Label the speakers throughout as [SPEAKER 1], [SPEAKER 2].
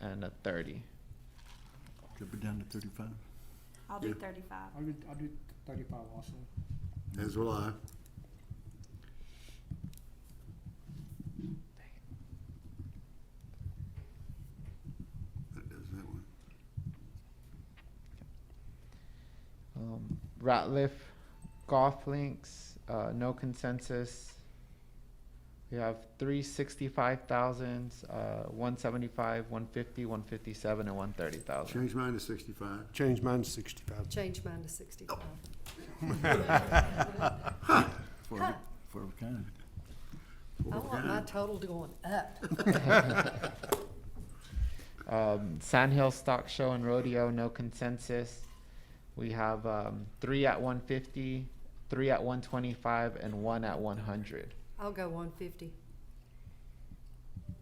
[SPEAKER 1] and a thirty.
[SPEAKER 2] Drop it down to thirty-five.
[SPEAKER 3] I'll do
[SPEAKER 4] Yeah.
[SPEAKER 3] thirty-five.
[SPEAKER 5] I'll do, I'll do thirty-five also.
[SPEAKER 4] As will I. That does that one.
[SPEAKER 1] Um, Ratliff, golf links, uh, no consensus. We have three sixty-five thousands, uh, one seventy-five, one fifty, one fifty-seven, and one thirty thousand.
[SPEAKER 4] Change mine to sixty-five.
[SPEAKER 6] Change mine to sixty-five.
[SPEAKER 7] Change mine to sixty-five.
[SPEAKER 4] Oh,
[SPEAKER 2] For, for a kind.
[SPEAKER 7] I want my total to going up.
[SPEAKER 1] Um, Sandhill Stock Show and Rodeo, no consensus. We have, um, three at one fifty, three at one twenty-five, and one at one hundred.
[SPEAKER 7] I'll go one fifty.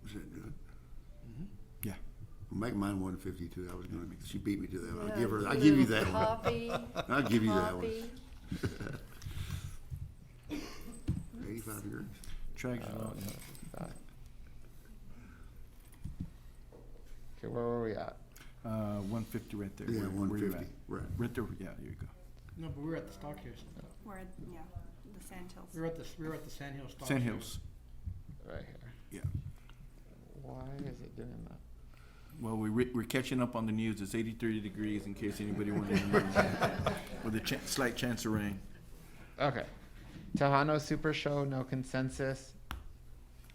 [SPEAKER 4] Is that good?
[SPEAKER 2] Yeah.
[SPEAKER 4] Make mine one fifty-two. I was gonna, be- she beat me to that one. I'll give her, I'll give you that one.
[SPEAKER 7] Copy,
[SPEAKER 4] I'll give you that one.
[SPEAKER 7] copy.
[SPEAKER 4] Eighty-five years.
[SPEAKER 2] Trags it out.
[SPEAKER 1] Okay, where were we at?
[SPEAKER 2] Uh, one fifty right there.
[SPEAKER 4] Yeah,
[SPEAKER 2] where-
[SPEAKER 4] one
[SPEAKER 2] where you
[SPEAKER 4] fifty,
[SPEAKER 2] at.
[SPEAKER 4] right.
[SPEAKER 2] Right there, yeah, there you go.
[SPEAKER 5] No, but we're at the Stock Hill. stuff.
[SPEAKER 3] We're, at- yeah, the Sand Hills.
[SPEAKER 5] We're at the, we're at the Sand Hill Stock.
[SPEAKER 2] Sand
[SPEAKER 5] Show.
[SPEAKER 2] Hills,
[SPEAKER 1] Right here.
[SPEAKER 2] yeah.
[SPEAKER 1] Why is it doing that?
[SPEAKER 2] Well, we, re- we're catching up on the news. It's eighty-three degrees in case anybody wanted to know. With a chan- slight chance of rain.
[SPEAKER 1] Okay. Tejano Super Show, no consensus.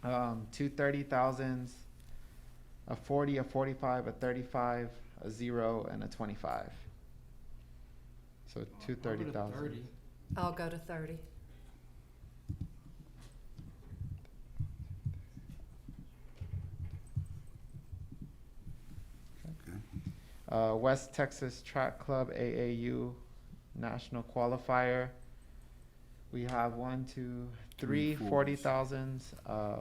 [SPEAKER 1] Um, two thirty thousands, a forty, a forty-five, a thirty-five, a zero, and a twenty-five. So
[SPEAKER 5] I'll
[SPEAKER 1] two
[SPEAKER 5] go to
[SPEAKER 1] thirty thousand.
[SPEAKER 5] 30.
[SPEAKER 7] I'll go to thirty.
[SPEAKER 4] Okay.
[SPEAKER 1] Uh, West Texas Track Club AAU National Qualifier. We have one, two, three
[SPEAKER 2] Three fours.
[SPEAKER 1] forty thousands, uh,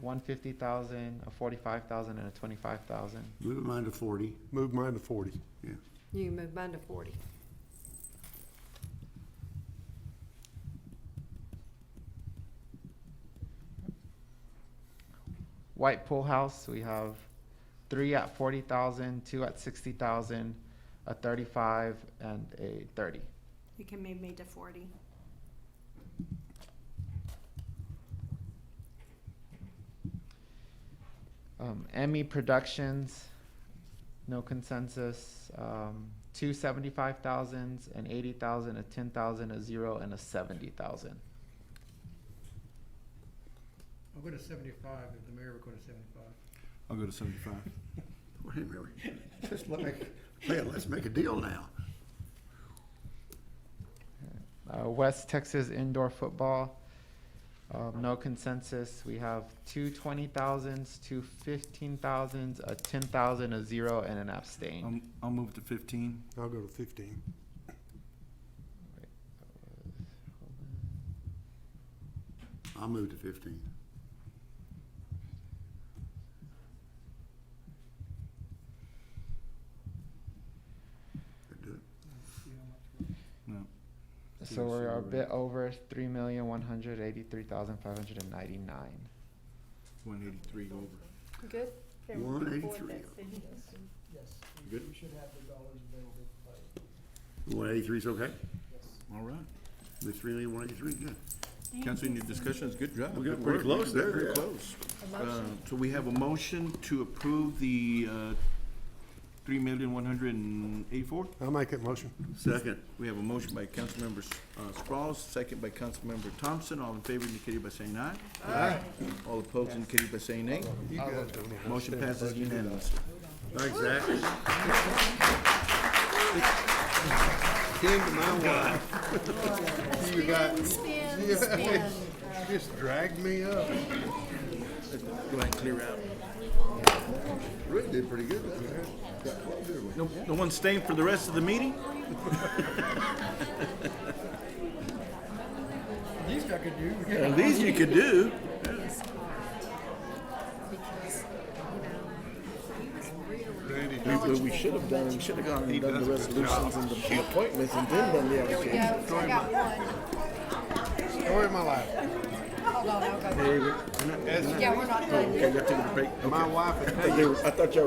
[SPEAKER 1] one fifty thousand, a forty-five thousand, and a twenty-five thousand.
[SPEAKER 4] Move mine to forty.
[SPEAKER 6] Move mine to forty.
[SPEAKER 4] Yeah.
[SPEAKER 7] You can move mine to forty.
[SPEAKER 1] White Pool House, we have three at forty thousand, two at sixty thousand, a thirty-five, and a thirty.
[SPEAKER 3] You can move me to forty.
[SPEAKER 1] Um, Emmy Productions, no consensus, um, two seventy-five thousands, an eighty thousand, a ten thousand, a zero, and a seventy thousand.
[SPEAKER 5] I'll go to seventy-five if the mayor would go to seventy-five.
[SPEAKER 2] I'll go to seventy-five.
[SPEAKER 4] Wait a minute. Just let me, man, let's make a deal now.
[SPEAKER 1] Uh, West Texas Indoor Football, um, no consensus, we have two twenty thousands, two fifteen thousands, a ten thousand, a zero, and an abstain.
[SPEAKER 2] I'll, I'll move to fifteen.
[SPEAKER 6] I'll go to fifteen.
[SPEAKER 4] I'll move to fifteen. That do it?
[SPEAKER 5] You know, I'm not-
[SPEAKER 2] No.
[SPEAKER 1] So
[SPEAKER 2] Yeah, so
[SPEAKER 1] we're
[SPEAKER 2] we're
[SPEAKER 1] a bit
[SPEAKER 2] at-
[SPEAKER 1] over three million one hundred eighty-three thousand five hundred and ninety-nine.
[SPEAKER 2] One eighty-three over.
[SPEAKER 7] Good?
[SPEAKER 4] One eighty-three.
[SPEAKER 8] Yes,
[SPEAKER 4] Good.
[SPEAKER 8] we should have the dollars available for it.
[SPEAKER 4] One eighty-three is okay?
[SPEAKER 2] All right.
[SPEAKER 4] The three million, one eighty-three, good.
[SPEAKER 2] Council, any discussions? Good job.
[SPEAKER 4] We got
[SPEAKER 2] Good
[SPEAKER 4] pretty
[SPEAKER 2] work.
[SPEAKER 4] close there,
[SPEAKER 2] Pretty
[SPEAKER 4] yeah.
[SPEAKER 2] close. Uh, So we have a motion to approve the uh, three million, one hundred and eighty-four?
[SPEAKER 6] I'll make that motion.
[SPEAKER 4] Second.
[SPEAKER 2] We have a motion by Councilmember uh, Sprouls, second by Councilmember Thompson. All in favor indicated by saying aye. Aye. All opposed indicated by saying nay. Motion passes unanimously.
[SPEAKER 4] Thanks, Zach.
[SPEAKER 6] Came to my wife,
[SPEAKER 7] You got. Spin, spin,
[SPEAKER 6] just dragged me up.
[SPEAKER 2] Go ahead and clear out.
[SPEAKER 4] Rick did pretty good doesn't he? Got close, didn't we?
[SPEAKER 2] No no one staying for the rest of the meeting?
[SPEAKER 5] These I could do.
[SPEAKER 2] At least you could do.
[SPEAKER 7] because, you know, he was really.
[SPEAKER 6] Randy,
[SPEAKER 2] We- What we should have done, we should have gone and done the resolutions and the appointments and then done the
[SPEAKER 7] Here we go, I got one.
[SPEAKER 6] story of my life.
[SPEAKER 7] Hold on, I'll go. Yeah, we're not done yet.
[SPEAKER 2] Okay, y'all taking a break? Okay.
[SPEAKER 6] My wife and
[SPEAKER 2] I thought you were- I thought y'all